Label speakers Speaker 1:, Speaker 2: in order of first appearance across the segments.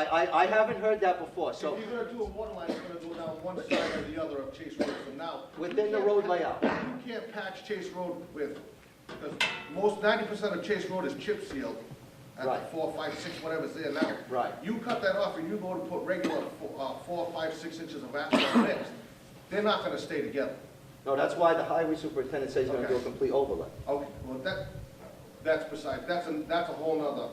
Speaker 1: I, I, I haven't heard that before,
Speaker 2: So
Speaker 1: so
Speaker 2: if you're gonna do a water line, it's gonna go down one side or the other of Chase Road from now.
Speaker 1: within the road layout.
Speaker 2: You can't patch Chase Road with, because most, ninety percent of Chase Road is chip sealed at the
Speaker 1: Right.
Speaker 2: four, five, six, whatever's there now.
Speaker 1: Right.
Speaker 2: You cut that off and you go to put regular, fo- uh, four, five, six inches of asphalt mix, they're not gonna stay together.
Speaker 1: No, that's why the highway superintendent says he's gonna do a
Speaker 2: Okay.
Speaker 1: complete overlay.
Speaker 2: Okay, well, that, that's beside, that's a, that's a whole nother,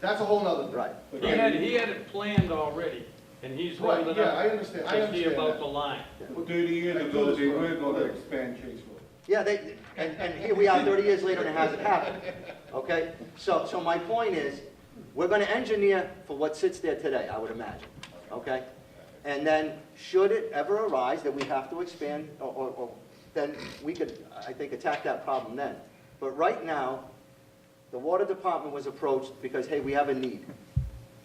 Speaker 2: that's a whole nother.
Speaker 1: Right.
Speaker 3: He had, he had it planned already, and he's
Speaker 2: Right,
Speaker 3: holding
Speaker 2: yeah, I
Speaker 3: up
Speaker 2: understand, I
Speaker 3: to see
Speaker 2: understand
Speaker 3: about
Speaker 2: that.
Speaker 3: the line.
Speaker 4: Thirty years ago, they were gonna expand Chase Road.
Speaker 1: Yeah, they, and, and here we are thirty years later and it hasn't happened, okay? So, so my point is, we're gonna engineer for what sits there today, I would imagine, okay? And then, should it ever arise that we have to expand, or, or, or, then we could, I think, attack that problem then. But right now, the water department was approached because, hey, we have a need.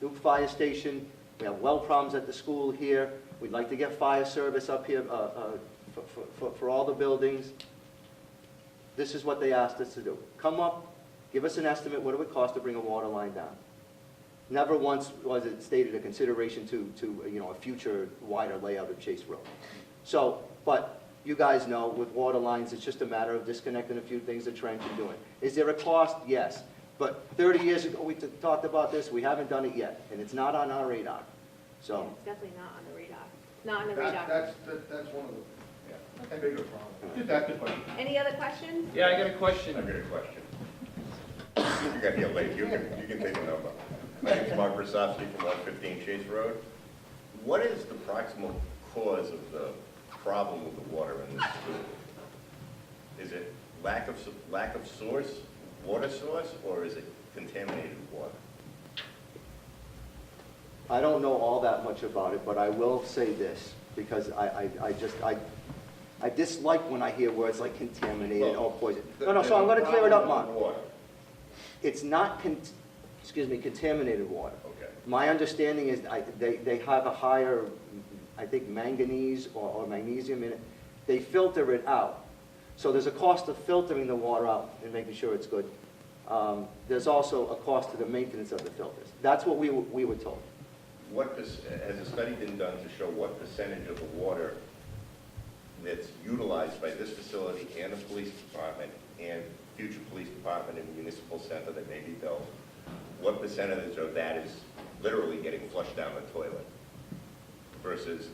Speaker 1: Duke Fire Station, we have well problems at the school here, we'd like to get fire service up here, uh, uh, for, for- for, for all the buildings. This is what they asked us to do. Come up, give us an estimate, what it would cost to bring a water line down? Never once was it stated a consideration to, to, you know, a future wider layout of Chase Road. So, but you guys know with water lines, it's just a matter of disconnecting a few things, a trench and doing. it. Is there a cost? Yes. But 30 years ago, we t- talked about this, we haven't done it yet, and it's not on our radar. So,
Speaker 5: It's definitely not on the radar. It's not on the
Speaker 2: That,
Speaker 5: radar.
Speaker 2: that's, that- that's one of the bigger problems.
Speaker 4: Just ask the question.
Speaker 5: Any other questions?
Speaker 3: Yeah, I got a question.
Speaker 6: I got a question. You got here late, you can, you can take a number. My name's Mark Rosofsky from one fifteen Chase Road. What is the proximal cause of the problem with the water in this school? Is it lack of, s- lack of source, water source, or is it contaminated water?
Speaker 1: I don't know all that much about it, but I will say this, because I, I, I just, I, I dislike when I hear words like contaminated or poison. No, no, so I'm gonna clear it up, Mark.
Speaker 6: Water,
Speaker 1: It's not, con- excuse me, contaminated water.
Speaker 6: okay.
Speaker 1: My understanding is, I, they, they have a higher, I think manganese or, or magnesium in it. They filter it out. So there's a cost of filtering the water out and making sure it's good. Um, there's also a cost to the maintenance of the filters. That's what we, were- we were told.
Speaker 6: What, perc- has a study been done to show what percentage of the water that's utilized by this facility and the police department and future police department and municipal center that may be built, what percentage of that is literally getting flushed down the toilet versus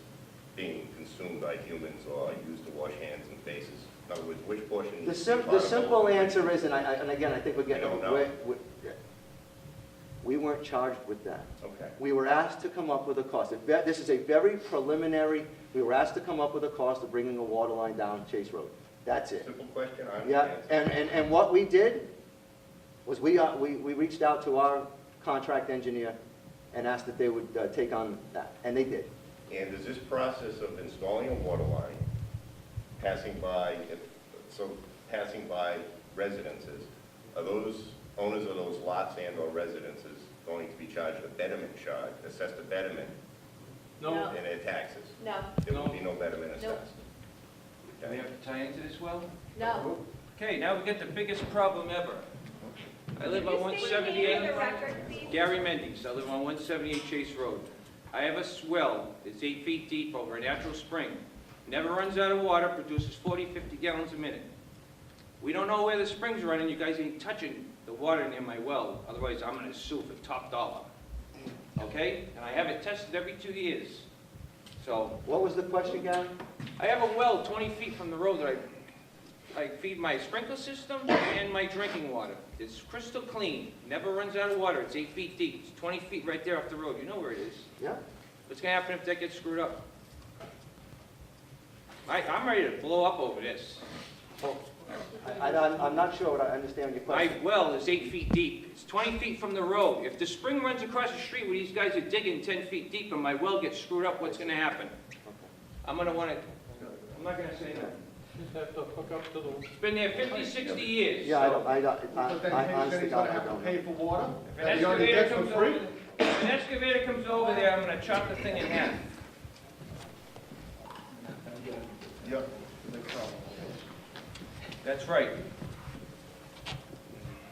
Speaker 6: being consumed by humans or used to wash hands and faces? In other words, which portion?
Speaker 1: The
Speaker 6: is
Speaker 1: sim, the
Speaker 6: potable?
Speaker 1: simple answer is, and I, I- and again, I think we're getting.
Speaker 6: I don't know.
Speaker 1: we're- we're- We weren't charged with that.
Speaker 6: Okay.
Speaker 1: We were asked to come up with a cost. If that- This is a very preliminary, we were asked to come up with a cost of bringing a water line down Chase Road. That's it.
Speaker 6: Simple question, I
Speaker 1: Yeah,
Speaker 6: understand.
Speaker 1: and, and, and what we did was we, uh, we, we reached out to our contract engineer and asked if they would uh, take on that, and they did.
Speaker 6: And is this process of installing a water line, passing by, so passing by residences, are those owners of those lots and or residences going to be charged a betterment charge, assessed a betterment
Speaker 3: No,
Speaker 5: No.
Speaker 6: in their taxes?
Speaker 5: No,
Speaker 6: There will be no betterment
Speaker 5: Nope.
Speaker 6: assessed.
Speaker 7: Do we have to tie into this well?
Speaker 5: no.
Speaker 7: Okay, now we get the biggest problem ever. I live on
Speaker 5: Can you state your name for the
Speaker 7: 178,
Speaker 5: record, please?
Speaker 7: Gary Mendes, I live on 178 Chase Road. I have a swell, it's eight feet deep over a natural spring, never runs out of water, produces 40, 50 gallons a minute. We don't know where the spring's running, you guys ain't touching the water near my well, otherwise I'm gonna sue for top dollar. Okay? And I have it tested every two years. So,
Speaker 1: What was the question, Gary?
Speaker 7: I have a well 20 feet from the road that I, I feed my sprinkler system and my drinking water. It's crystal clean, never runs out of water, it's eight feet deep, it's 20 feet right there off the road, you know where it is.
Speaker 1: Yeah?
Speaker 7: What's gonna happen if that gets screwed up? I, I'm ready to blow up over this.
Speaker 1: I, I, I'm- I'm not sure what I understand your
Speaker 7: My
Speaker 1: question.
Speaker 7: well is eight feet deep, it's 20 feet from the road. If the spring runs across the street where these guys are digging 10 feet deep and my well gets screwed up, what's gonna happen? I'm gonna wanna, I'm not gonna say that.
Speaker 3: just have to hook up to the,
Speaker 7: It's been there 50, 60 years.
Speaker 1: Yeah, I don't, I, don't-
Speaker 2: But then
Speaker 1: I, I
Speaker 2: he- then
Speaker 1: honestly,
Speaker 2: he's
Speaker 1: God,
Speaker 2: gonna
Speaker 1: I
Speaker 2: have to
Speaker 1: don't know.
Speaker 2: pay for water.
Speaker 7: If
Speaker 2: that he already gets for free.
Speaker 7: if an excavator comes over there, I'm gonna chop the thing in half.
Speaker 2: Yep. big problem.
Speaker 7: That's right.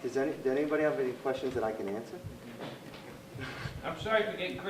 Speaker 1: Does any, does anybody have any questions that I can answer?
Speaker 7: I'm sorry for getting crazy